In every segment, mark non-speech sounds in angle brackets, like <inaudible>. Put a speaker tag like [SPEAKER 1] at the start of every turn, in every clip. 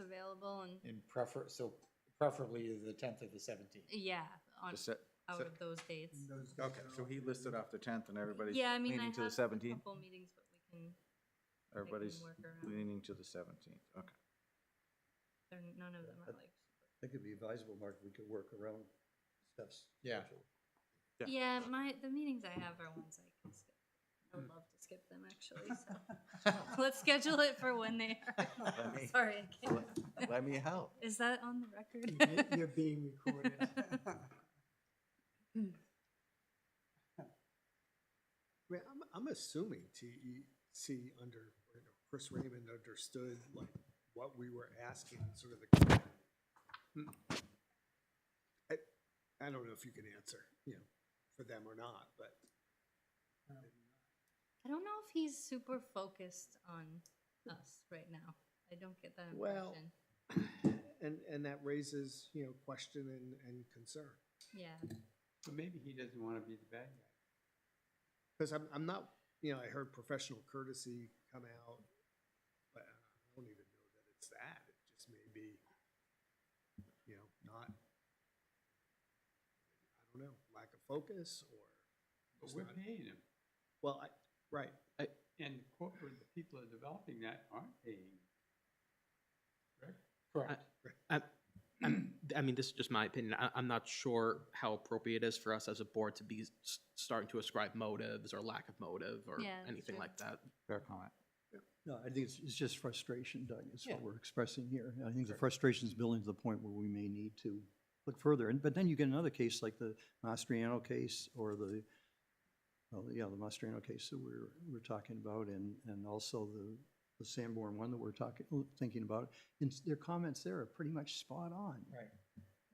[SPEAKER 1] available and,
[SPEAKER 2] in prefer, so preferably either the tenth or the seventeenth.
[SPEAKER 1] yeah, on,
[SPEAKER 3] The se-
[SPEAKER 1] out
[SPEAKER 3] se-
[SPEAKER 1] of those dates.
[SPEAKER 3] Okay, so he listed off the tenth and everybody's
[SPEAKER 1] Yeah, I mean, I
[SPEAKER 3] leaning
[SPEAKER 1] have
[SPEAKER 3] to the
[SPEAKER 1] a
[SPEAKER 3] seventeenth?
[SPEAKER 1] couple meetings, but we can,
[SPEAKER 3] Everybody's
[SPEAKER 1] work around.
[SPEAKER 3] leaning to the seventeenth, okay.
[SPEAKER 1] they're, none of them are like.
[SPEAKER 4] think it'd be advisable, Mark, if we could work around Steph's.
[SPEAKER 2] Yeah.
[SPEAKER 4] schedule.
[SPEAKER 3] Yeah.
[SPEAKER 1] Yeah, my, the meetings I have are ones I can skip. I would love to skip them, actually, so. <laughs> Let's schedule it for when they are.
[SPEAKER 3] <laughs> Let me-
[SPEAKER 1] Sorry, I can't.
[SPEAKER 3] let- Let me help.
[SPEAKER 1] Is that on the record?
[SPEAKER 5] You're being <laughs> recorded. Well, I'm, I'm assuming TEC under, you know, Chris Raymond understood like what we were asking, sort of the. Hmm. I, I don't know if you can answer, you know, for them or not, but.
[SPEAKER 1] <laughs>
[SPEAKER 5] um,
[SPEAKER 1] I don't know if he's super focused on us right now. I don't get that
[SPEAKER 5] Well-
[SPEAKER 1] impression.
[SPEAKER 5] <clears throat> And, and that raises, you know, question and, and concern.
[SPEAKER 1] Yeah,
[SPEAKER 6] But maybe he doesn't want to be the bad guy.
[SPEAKER 5] Because I'm, I'm not, you know, I heard professional courtesy come out, but I don't even know that it's that. It just may be, you know, not, I don't know, lack of focus or.
[SPEAKER 6] But
[SPEAKER 5] just
[SPEAKER 6] we're
[SPEAKER 5] not-
[SPEAKER 6] paying him.
[SPEAKER 5] Well, I, right,
[SPEAKER 6] And the corporate, the people that are developing that aren't paying.
[SPEAKER 2] Correct.
[SPEAKER 7] I'm,
[SPEAKER 1] Mm.
[SPEAKER 7] I mean, this is just my opinion. I, I'm not sure how appropriate it is for us as a board to be s- starting to ascribe motives or lack of motive or
[SPEAKER 1] Yeah, that's
[SPEAKER 7] anything
[SPEAKER 1] true.
[SPEAKER 7] like that.
[SPEAKER 3] Fair comment.
[SPEAKER 4] No, I think it's, it's just frustration, Doug, is what
[SPEAKER 7] Yeah.
[SPEAKER 4] we're expressing here. I think the frustration's building to the point where we may need to look further. And, but then you get another case like the Mastriano case or the, well, yeah, the Mastriano case that we're, we're talking about and, and also the, the Sanborn one that we're talking, oh, thinking about. And their comments there are pretty much spot on.
[SPEAKER 2] Right. Right.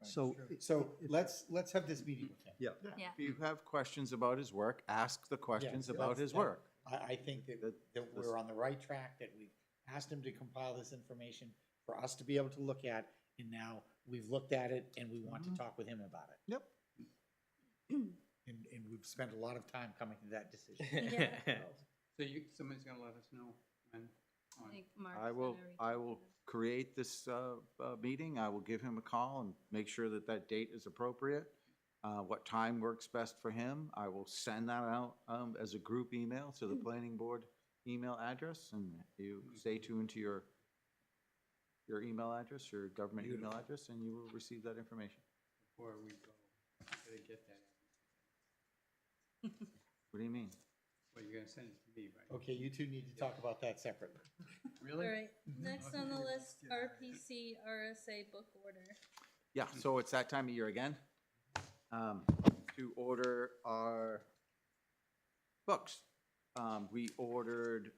[SPEAKER 4] So. it-
[SPEAKER 2] So
[SPEAKER 4] it-
[SPEAKER 2] let's, let's have this meeting with him.
[SPEAKER 4] Yeah.
[SPEAKER 1] Yeah.
[SPEAKER 3] If you have questions about his work, ask the questions
[SPEAKER 2] yeah,
[SPEAKER 3] about
[SPEAKER 2] that's-
[SPEAKER 3] his
[SPEAKER 2] that-
[SPEAKER 3] work.
[SPEAKER 2] I, I think that,
[SPEAKER 3] That-
[SPEAKER 2] that
[SPEAKER 3] this-
[SPEAKER 2] we're on the right track, that we've asked him to compile this information for us to be able to look at, and now we've looked at it and we want to
[SPEAKER 3] Mhm.
[SPEAKER 2] talk with him about it.
[SPEAKER 3] Yep.
[SPEAKER 2] <clears throat> And, and we've spent a lot of time coming to that decision.
[SPEAKER 1] Yeah.
[SPEAKER 6] So you, somebody's gonna let us know when,
[SPEAKER 1] I
[SPEAKER 6] on,
[SPEAKER 1] think Mark's
[SPEAKER 3] I
[SPEAKER 1] done
[SPEAKER 3] will,
[SPEAKER 1] everything
[SPEAKER 3] I will
[SPEAKER 1] that-
[SPEAKER 3] create this, uh, uh, meeting. I will give him a call and make sure that that date is appropriate. Uh, what time works best for him. I will send that out, um, as a group email to the planning board email address and you stay tuned to your, your email address, your government email
[SPEAKER 6] Beautiful.
[SPEAKER 3] address, and you will receive that information.
[SPEAKER 6] before we go. I gotta get that.
[SPEAKER 3] What do you mean?
[SPEAKER 6] Well, you're gonna send it to me, right?
[SPEAKER 2] Okay, you two need to talk about that separately.
[SPEAKER 6] Really?
[SPEAKER 1] All right, next on the
[SPEAKER 6] Okay.
[SPEAKER 1] list, RPC RSA book order.
[SPEAKER 3] Yeah, so it's that time of year again. um, To order our books. Um, We ordered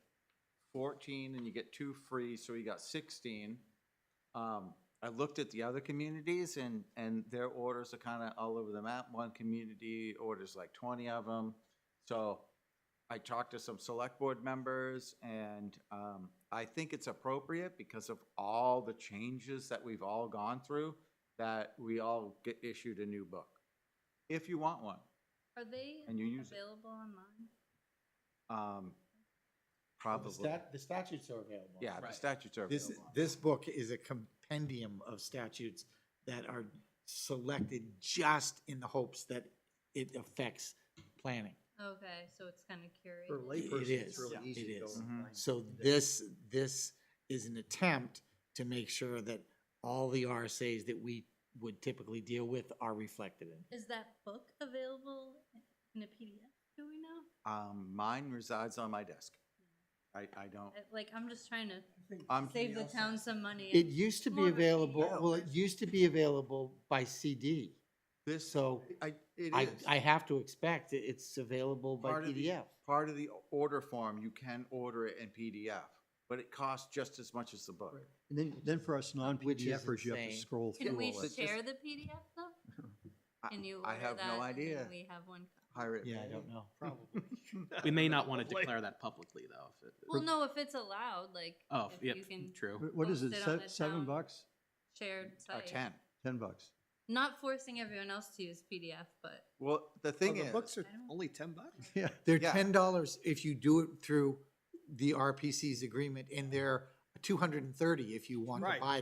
[SPEAKER 3] fourteen and you get two free, so we got sixteen. Um, I looked at the other communities and, and their orders are kind of all over the map. One community orders like twenty of them. So I talked to some select board members and um, I think it's appropriate because of all the changes that we've all gone through that we all get issued a new book, if you want one.
[SPEAKER 1] Are they
[SPEAKER 3] And you use it.
[SPEAKER 1] available online?
[SPEAKER 3] Um,
[SPEAKER 2] Well, the
[SPEAKER 3] Probably,
[SPEAKER 2] stat- The statutes are available.
[SPEAKER 3] yeah, the
[SPEAKER 6] Right.
[SPEAKER 3] statutes are
[SPEAKER 2] This,
[SPEAKER 3] available.
[SPEAKER 2] this book is a compendium of statutes that are selected just in the hopes that it affects planning.
[SPEAKER 1] Okay, so it's kind of curated.
[SPEAKER 5] for
[SPEAKER 2] It
[SPEAKER 5] laypersons,
[SPEAKER 2] is,
[SPEAKER 5] it's really
[SPEAKER 2] yeah,
[SPEAKER 5] easy
[SPEAKER 2] it
[SPEAKER 5] to go
[SPEAKER 2] is. Mm-hmm.
[SPEAKER 5] online. and
[SPEAKER 2] So
[SPEAKER 5] do that.
[SPEAKER 2] this, this is an attempt to make sure that all the RSAs that we would typically deal with are reflected in.
[SPEAKER 1] Is that book available in a PDF? Do we know?
[SPEAKER 3] Um, Mine resides on my desk. I, I don't,
[SPEAKER 1] I- Like, I'm just trying to
[SPEAKER 3] I'm,
[SPEAKER 1] save the town some money.
[SPEAKER 2] It
[SPEAKER 1] and-
[SPEAKER 2] used to be
[SPEAKER 1] More of a
[SPEAKER 2] available,
[SPEAKER 1] PDF
[SPEAKER 2] well, it
[SPEAKER 1] version.
[SPEAKER 2] used to be available by CD.
[SPEAKER 3] this,
[SPEAKER 2] So
[SPEAKER 3] I, it
[SPEAKER 2] I,
[SPEAKER 3] is.
[SPEAKER 2] I have to expect it- it's available by
[SPEAKER 3] Part of the-
[SPEAKER 2] PDF.
[SPEAKER 3] Part of the order form, you can order it in PDF, but it costs just as much as the book.
[SPEAKER 4] And then, then for us
[SPEAKER 2] Which is
[SPEAKER 4] non-PDFers, you have to
[SPEAKER 2] insane.
[SPEAKER 4] scroll through
[SPEAKER 1] Can
[SPEAKER 4] all
[SPEAKER 1] we
[SPEAKER 4] that.
[SPEAKER 3] It's just-
[SPEAKER 1] share the PDF though?
[SPEAKER 3] <laughs> I-
[SPEAKER 1] Can you
[SPEAKER 3] I
[SPEAKER 1] order
[SPEAKER 3] have
[SPEAKER 1] that
[SPEAKER 3] no
[SPEAKER 1] and then
[SPEAKER 3] idea.
[SPEAKER 1] We have one. copy?
[SPEAKER 3] Pirate.
[SPEAKER 2] Yeah, I
[SPEAKER 3] Bay.
[SPEAKER 2] don't know.
[SPEAKER 5] Probably.
[SPEAKER 7] We may not want to declare that publicly, though. if it-
[SPEAKER 1] Well, no, if it's allowed, like,
[SPEAKER 7] Oh,
[SPEAKER 1] if
[SPEAKER 7] yeah,
[SPEAKER 1] you can
[SPEAKER 7] true.
[SPEAKER 4] What- What is
[SPEAKER 1] post
[SPEAKER 4] it,
[SPEAKER 1] it on
[SPEAKER 4] se-
[SPEAKER 1] the
[SPEAKER 4] seven
[SPEAKER 1] town.
[SPEAKER 4] bucks,
[SPEAKER 1] shared
[SPEAKER 3] Or
[SPEAKER 1] site.
[SPEAKER 3] Oh, ten.
[SPEAKER 4] ten bucks?
[SPEAKER 1] Not forcing everyone else to use PDF, but
[SPEAKER 3] Well, the
[SPEAKER 5] Oh,
[SPEAKER 3] thing
[SPEAKER 5] The
[SPEAKER 3] is.
[SPEAKER 5] books are
[SPEAKER 1] I don't-
[SPEAKER 5] only ten bucks?
[SPEAKER 4] Yeah.
[SPEAKER 2] They're
[SPEAKER 3] Yeah.
[SPEAKER 2] ten dollars if you do it through the RPC's agreement, and they're two hundred and thirty if you want to
[SPEAKER 5] Right.
[SPEAKER 2] buy